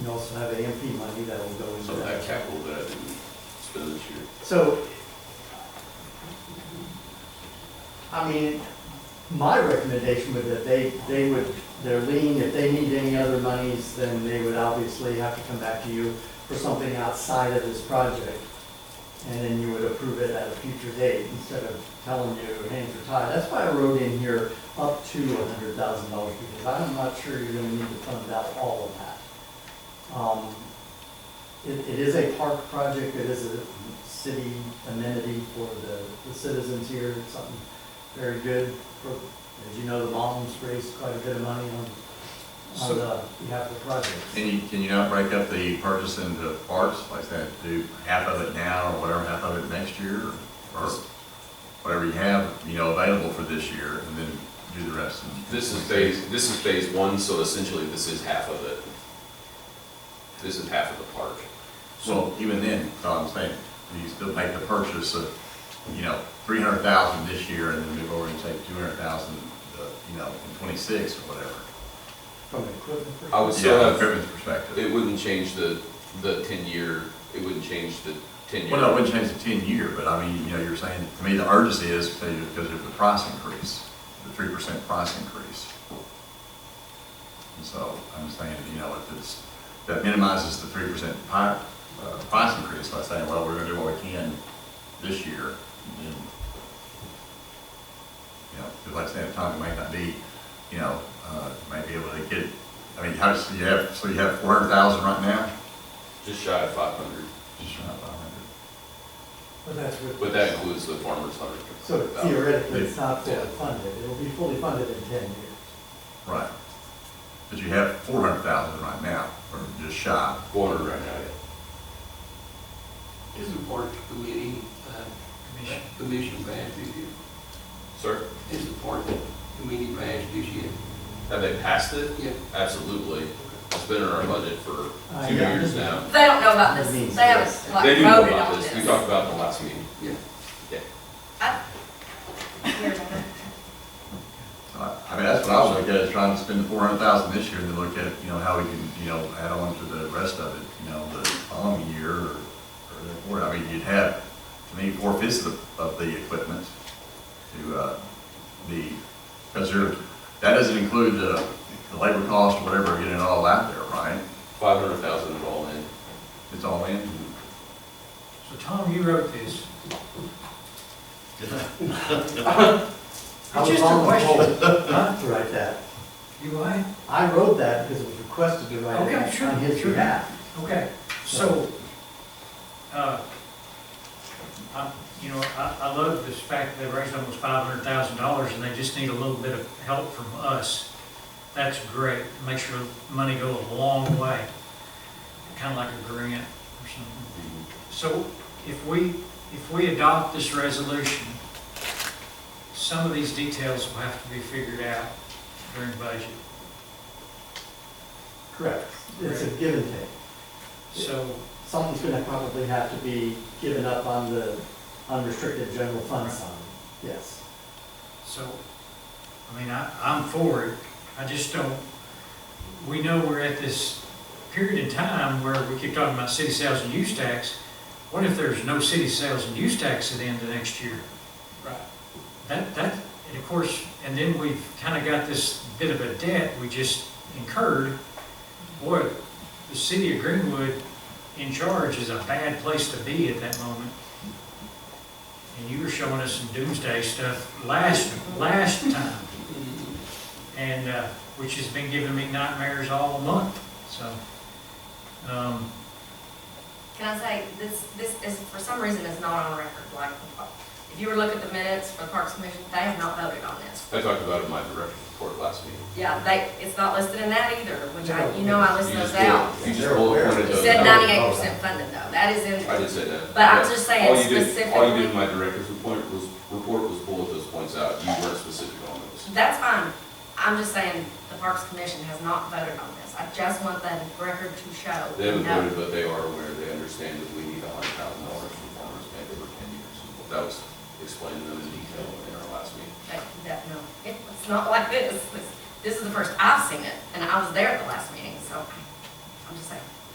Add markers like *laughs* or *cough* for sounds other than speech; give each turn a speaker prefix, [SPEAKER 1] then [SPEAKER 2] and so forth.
[SPEAKER 1] You also have AMP money that will go into
[SPEAKER 2] Some of that
[SPEAKER 1] that.
[SPEAKER 2] capital that I didn't spend this year.
[SPEAKER 1] So, I mean, my recommendation would that they, they would, they're lean, if they need any other monies, then they would obviously have to come back to you for something outside of this project. And then you would approve it at a future date instead of telling you hands are tied. That's why I wrote in here up to a hundred thousand dollars because I'm not sure you're gonna need to fund out all of that. Um, It, it is a park project, it is a city amenity for the, the citizens here, It's something very good. for- As you know, the moms raised quite a bit of money on, on the behalf of the project.
[SPEAKER 3] Can you, can you not break up the purchase into parts like that? Do half of it now or whatever, half of it next year? Or whatever you have, you know, available for this year and then do the rest? in-
[SPEAKER 2] This is phase, this is phase one, so essentially this is half of it. This is half of the park.
[SPEAKER 3] Well, even then, that's all I'm saying, you still make the purchase of, you know, three hundred thousand this year and then move over and take two hundred thousand, uh, you know, in twenty-six or whatever.
[SPEAKER 1] From an equipment perspective.
[SPEAKER 2] I would
[SPEAKER 3] Yeah,
[SPEAKER 2] still
[SPEAKER 3] from
[SPEAKER 2] have,
[SPEAKER 3] Griffin's perspective.
[SPEAKER 2] it wouldn't change the, the ten-year, it wouldn't change the ten-year.
[SPEAKER 3] Well, no, it wouldn't change the ten-year, but I mean, you know, you're saying, to me, the urgency is because of the price increase, the three percent price increase. And so I'm saying, you know, if it's, that minimizes the three percent pi, uh, price increase by saying, well, we're gonna do what we can this year. and then, You know, because like I said, Tommy might not be, you know, uh, might be able to get, I mean, how, so you have, so you have four hundred thousand right now?
[SPEAKER 2] Just shy of five hundred,
[SPEAKER 3] Just around five hundred.
[SPEAKER 1] But that's what.
[SPEAKER 2] but that includes the farmer's hundred.
[SPEAKER 1] So theoretically, it's not fully
[SPEAKER 2] Yeah.
[SPEAKER 1] funded, it'll be fully funded in ten years.
[SPEAKER 3] Right. But you have four hundred thousand right now, or just shy.
[SPEAKER 2] Four hundred right now, yeah.
[SPEAKER 4] Isn't park committee, uh, commission passed this year?
[SPEAKER 2] Sir,
[SPEAKER 4] Is the park committee passed this year?
[SPEAKER 2] have they passed it?
[SPEAKER 4] Yeah.
[SPEAKER 2] Absolutely. It's been in our budget for
[SPEAKER 1] Uh,
[SPEAKER 2] two
[SPEAKER 1] yeah.
[SPEAKER 2] years now.
[SPEAKER 5] They don't know about this,
[SPEAKER 1] It means
[SPEAKER 5] they
[SPEAKER 1] this.
[SPEAKER 5] haven't
[SPEAKER 2] They
[SPEAKER 5] like
[SPEAKER 2] do know
[SPEAKER 5] voted
[SPEAKER 2] about
[SPEAKER 5] on
[SPEAKER 2] this.
[SPEAKER 5] this.
[SPEAKER 2] We talked about it in the last meeting.
[SPEAKER 4] Yeah.
[SPEAKER 2] Yeah.
[SPEAKER 5] I- Here's one.
[SPEAKER 3] So I Uh, I mean, that's what I was looking at, is trying to spend the four hundred thousand this year and then look at, you know, how we can, you know, add on to the rest of it, you know, the following year or, or, the quarter. I mean, you'd have, to me, four fifths of, of the equipment to, uh, the, because there, that doesn't include the, the labor cost or whatever, getting it all out there, right?
[SPEAKER 2] Five hundred thousand is all in.
[SPEAKER 3] It's all in.
[SPEAKER 6] So Tom, you wrote this.
[SPEAKER 1] *laughs* I was
[SPEAKER 6] just a
[SPEAKER 1] on the
[SPEAKER 6] question.
[SPEAKER 1] roll Not to write that,
[SPEAKER 6] You eh? I?
[SPEAKER 1] I wrote that because it was requested to write
[SPEAKER 6] Okay,
[SPEAKER 1] it
[SPEAKER 6] sure,
[SPEAKER 1] on his
[SPEAKER 6] sure.
[SPEAKER 1] behalf.
[SPEAKER 6] Okay, so, uh, I, you know, I, I love this fact that they raised almost five hundred thousand dollars and they just need a little bit of help from us. That's great, makes your money go a long way, kinda like a grant or something. So if we, if we adopt this resolution, some of these details will have to be figured out during budget.
[SPEAKER 1] Correct, it's a give and take.
[SPEAKER 6] So,
[SPEAKER 1] Something's gonna probably have to be given up on the unrestricted general fund side, yes.
[SPEAKER 6] so, I mean, I, I'm for it. I just don't, we know we're at this period in time where we keep talking about city sales and use tax. What if there's no city sales and use tax at the end of next year?
[SPEAKER 4] Right.
[SPEAKER 6] That, that, and of course, and then we've kind of got this bit of a debt we just incurred. Boy, the city of Greenwood in charge is a bad place to be at that moment. And you were showing us some doomsday stuff last, last time, and, uh, which has been giving me nightmares all month, so. um,
[SPEAKER 5] Can I say, this, this is, for some reason, is not on record, like, if you were to look at the minutes for the Parks Commission, they have not voted on this.
[SPEAKER 2] I talked about it in my direct report last meeting.
[SPEAKER 5] Yeah, they, it's not listed in that either, which I, you know, I list
[SPEAKER 2] You
[SPEAKER 5] those
[SPEAKER 2] just
[SPEAKER 5] out.
[SPEAKER 2] pulled- You just bullet pointed
[SPEAKER 5] It
[SPEAKER 2] those
[SPEAKER 5] said
[SPEAKER 2] out.
[SPEAKER 5] ninety-eight percent funded though, that is in,
[SPEAKER 2] I did say that.
[SPEAKER 5] But I'm
[SPEAKER 2] Yeah.
[SPEAKER 5] just saying
[SPEAKER 2] All you did- All you
[SPEAKER 5] specifically-
[SPEAKER 2] did in my director's report was, report was bullet those points out. You weren't specific on those.
[SPEAKER 5] that's fine. I'm just saying, the Parks Commission has not voted on this. I just want that record to show.
[SPEAKER 2] They haven't
[SPEAKER 5] No.
[SPEAKER 2] voted, but they are aware, they understand that we need a hundred thousand dollars from farmers bank over ten years. That was explained to them in detail in our last meeting.
[SPEAKER 5] That, that, no, It- it's not like this. This- This is the first I've seen it, and I was there at the last meeting, so I I'm just saying.